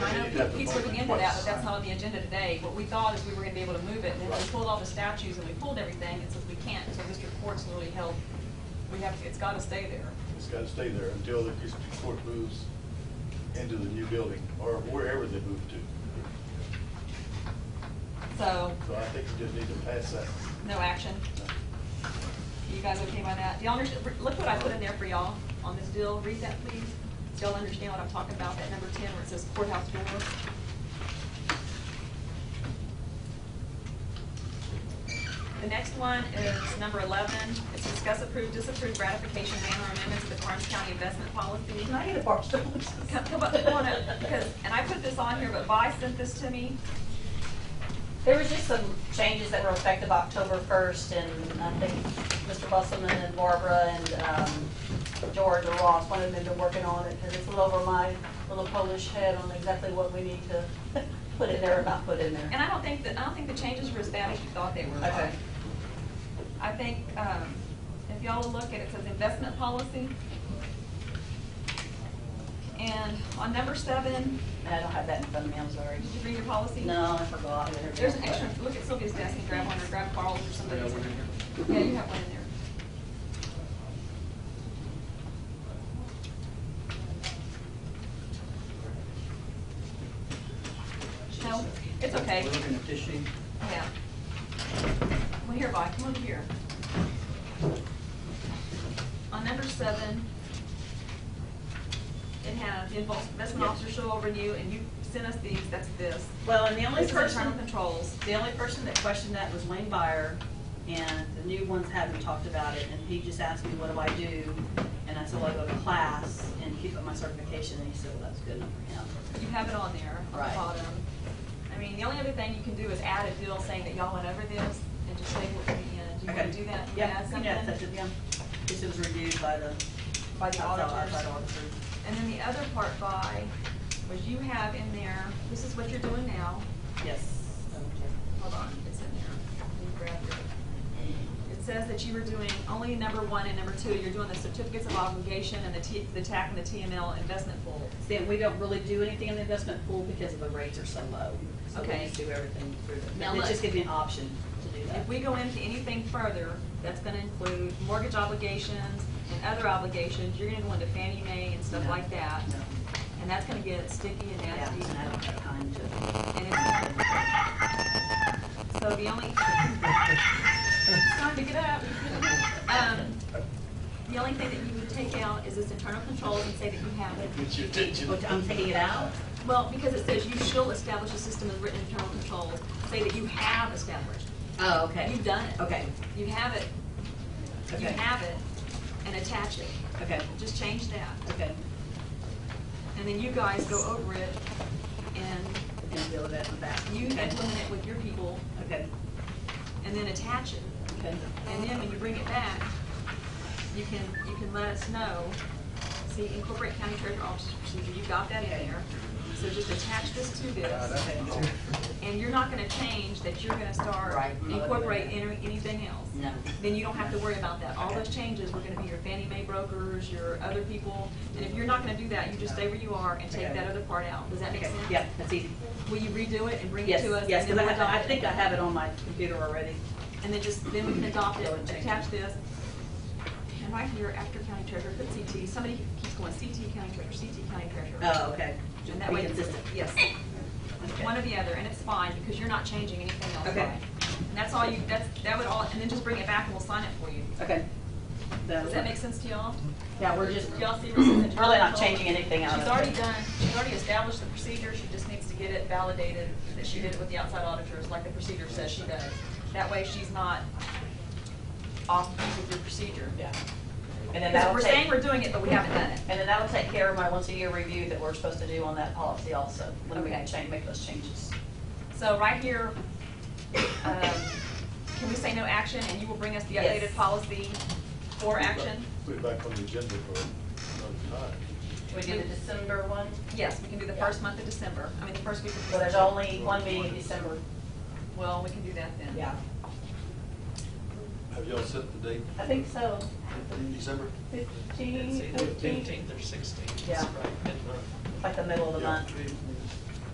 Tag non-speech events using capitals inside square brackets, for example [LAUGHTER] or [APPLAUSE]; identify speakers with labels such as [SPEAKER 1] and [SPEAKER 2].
[SPEAKER 1] that
[SPEAKER 2] keeps looking into that,
[SPEAKER 1] department twice.
[SPEAKER 2] but that's not on the agenda today. What we thought is we were gonna be able to move it, and then we
[SPEAKER 1] Right.
[SPEAKER 2] pulled all the statutes and we pulled everything, and since we can't, so district court's literally held, we have, it's gotta stay there.
[SPEAKER 1] It's gotta stay there until the district court moves into the new building, or wherever they move to.
[SPEAKER 2] So,
[SPEAKER 1] So I think you just need to pass that.
[SPEAKER 2] no action. You guys okay by that? Do y'all understand, look what I put in there for y'all on this deal, read that please. Do y'all understand what I'm talking about, that number ten where it says courthouse door? The next one is number eleven, it's discuss approve, disapprove ratification manner amendments to the Karnes County investment policy.
[SPEAKER 3] Can I get a bar [LAUGHS]
[SPEAKER 2] Come come up, come on up, because, and I put this on here, but Vi sent this to me.
[SPEAKER 3] There was just some changes that were effective October 1st, and I think Mr. Busselman and Barbara and um, George or Ross, one of them have been working on it, because it's a little over my little Polish head on exactly what we need to [LAUGHS] put in there or not put in
[SPEAKER 2] And
[SPEAKER 3] there.
[SPEAKER 2] I don't think that, I don't think the changes were as bad as you thought they were.
[SPEAKER 3] Okay.
[SPEAKER 2] I think, um, if y'all will look at it, it says investment policy. And on number seven,
[SPEAKER 3] And I don't have that in front of me, I'm sorry.
[SPEAKER 2] did you read your policy?
[SPEAKER 3] No, I forgot.
[SPEAKER 2] There's an extra, look at Sylvia's desk and grab one or grab Carl's or somebody's. Yeah, you have one in there. No, it's okay.
[SPEAKER 4] We're looking at this sheet.
[SPEAKER 2] Yeah. Well, here, Vi, come over here. On number seven, it has the investment officer shall renew, and you sent us these, that's this.
[SPEAKER 5] Well, and the only
[SPEAKER 2] This is internal
[SPEAKER 5] person,
[SPEAKER 2] controls.
[SPEAKER 5] the only person that questioned that was Wayne Byer, and the new ones hadn't talked about it, and he just asked me, what do I do? And I said, well, I go to class and keep up my certification, and he said, well, that's good enough for him.
[SPEAKER 2] You have it on there, on the
[SPEAKER 5] Right.
[SPEAKER 2] bottom. I mean, the only other thing you can do is add a deal saying that y'all went over this, and just say what we, uh, do you wanna
[SPEAKER 5] Okay.
[SPEAKER 2] do that? You wanna
[SPEAKER 5] Yeah,
[SPEAKER 2] add
[SPEAKER 5] you know, that's
[SPEAKER 2] something?
[SPEAKER 5] it, yeah. Just it was reviewed by the.
[SPEAKER 2] By the
[SPEAKER 5] outside-
[SPEAKER 2] auditors.
[SPEAKER 5] outside auditors.
[SPEAKER 2] And then the other part, Vi, was you have in there, this is what you're doing now,
[SPEAKER 5] Yes.
[SPEAKER 2] Hold on, it's in there. Let me grab it. It says that you were doing only number one and number two, you're doing the certificates of obligation and the T, the TAC and the TML investment pool.
[SPEAKER 5] See, and we don't really do anything in the investment pool because the rates are so low. So we
[SPEAKER 2] Okay.
[SPEAKER 5] just do everything through
[SPEAKER 2] Now
[SPEAKER 5] them. It
[SPEAKER 2] look.
[SPEAKER 5] just gives me an option to do that.
[SPEAKER 2] If we go into anything further, that's gonna include mortgage obligations and other obligations, you're gonna go into Fannie Mae and stuff
[SPEAKER 5] No.
[SPEAKER 2] like that.
[SPEAKER 5] No.
[SPEAKER 2] And that's gonna get sticky and
[SPEAKER 5] Yeah,
[SPEAKER 2] nasty.
[SPEAKER 5] and I don't have time to.
[SPEAKER 2] And it's- So the only, [LAUGHS] it's time to get up. Um, the only thing that you would take out is this internal controls and say that you have it.
[SPEAKER 1] Get your attention.
[SPEAKER 5] But Oh, I'm taking it out?
[SPEAKER 2] Well, because it says you shall establish a system of written internal controls, say that you have established.
[SPEAKER 5] Oh, okay.
[SPEAKER 2] You've done it.
[SPEAKER 5] Okay,
[SPEAKER 2] You have it, you
[SPEAKER 5] okay,
[SPEAKER 2] have it, and attach it.
[SPEAKER 5] okay,
[SPEAKER 2] Just change that.
[SPEAKER 5] okay.
[SPEAKER 2] And then you guys go over it and
[SPEAKER 5] And deal with that in the back.
[SPEAKER 2] you
[SPEAKER 5] Okay.
[SPEAKER 2] implement it with your people
[SPEAKER 5] Okay,
[SPEAKER 2] and then attach it.
[SPEAKER 5] okay.
[SPEAKER 2] And then when you bring it back, you can, you can let us know, see, incorporate county treasurer officer's procedure, you got that in there. So just attach this to
[SPEAKER 1] Uh,
[SPEAKER 2] this,
[SPEAKER 5] Okay.
[SPEAKER 2] and you're not gonna change that you're gonna start,
[SPEAKER 5] Right.
[SPEAKER 2] incorporate any- anything else.
[SPEAKER 5] No.
[SPEAKER 2] Then you don't have to worry about that. All those changes were gonna be your Fannie Mae brokers, your other people. And if you're not gonna do that, you just stay where you are and take
[SPEAKER 5] Okay.
[SPEAKER 2] that other part out. Does that make
[SPEAKER 5] Okay,
[SPEAKER 2] sense?
[SPEAKER 5] yeah, that's easy.
[SPEAKER 2] Will you redo it and bring it
[SPEAKER 5] Yes,
[SPEAKER 2] to us?
[SPEAKER 5] yes,
[SPEAKER 2] and
[SPEAKER 5] because I
[SPEAKER 2] then we'll
[SPEAKER 5] have, I
[SPEAKER 2] adopt it?
[SPEAKER 5] think I have it on my computer already.
[SPEAKER 2] And then just, then we can adopt it,
[SPEAKER 5] Go and change
[SPEAKER 2] attach this. And right here, after county treasurer, put CT, somebody keeps going CT county treasurer, CT county treasurer.
[SPEAKER 5] Oh, okay.
[SPEAKER 2] And
[SPEAKER 5] Just
[SPEAKER 2] that
[SPEAKER 5] be
[SPEAKER 2] way,
[SPEAKER 5] consistent.
[SPEAKER 2] yes,
[SPEAKER 5] Okay.
[SPEAKER 2] one or the other, and it's fine, because you're not changing anything else.
[SPEAKER 5] Okay.
[SPEAKER 2] And that's all you, that's, that would all, and then just bring it back and we'll sign it for you.
[SPEAKER 5] Okay.
[SPEAKER 2] Does that make sense to y'all?
[SPEAKER 5] Yeah, we're just,
[SPEAKER 2] Do y'all see what's in the?
[SPEAKER 5] Really not changing anything out of
[SPEAKER 2] She's
[SPEAKER 5] it.
[SPEAKER 2] already done, she's already established the procedure, she just needs to get it validated, that she did it with the outside auditors, like the procedure says she does. That way, she's not off with your procedure.
[SPEAKER 5] yeah. And then
[SPEAKER 2] Because
[SPEAKER 5] that'll
[SPEAKER 2] we're
[SPEAKER 5] take,
[SPEAKER 2] saying we're doing it, but we haven't done it.
[SPEAKER 5] and then that'll take care of my once a year review that we're supposed to do on that policy also, when we
[SPEAKER 2] Okay.
[SPEAKER 5] change, make those changes.
[SPEAKER 2] So right here, um, can we say no action, and you will bring us the
[SPEAKER 5] Yes.
[SPEAKER 2] updated policy for action?
[SPEAKER 1] Put it back on the agenda for another time.
[SPEAKER 5] Should we do the December one?
[SPEAKER 2] Yes, we can do the first month of December, I mean, the first week of
[SPEAKER 5] Well, there's
[SPEAKER 2] December.
[SPEAKER 5] only one meeting in December.
[SPEAKER 2] Well, we can do that then.
[SPEAKER 5] Yeah.
[SPEAKER 1] Have y'all set the date
[SPEAKER 5] I think so.
[SPEAKER 1] in December?
[SPEAKER 5] Fifteen,
[SPEAKER 6] It's either the
[SPEAKER 5] fourteen,
[SPEAKER 6] fifteenth or sixteenth,
[SPEAKER 5] Yeah.
[SPEAKER 6] it's right, mid-month.
[SPEAKER 5] like the middle of the
[SPEAKER 1] Yeah.
[SPEAKER 5] month.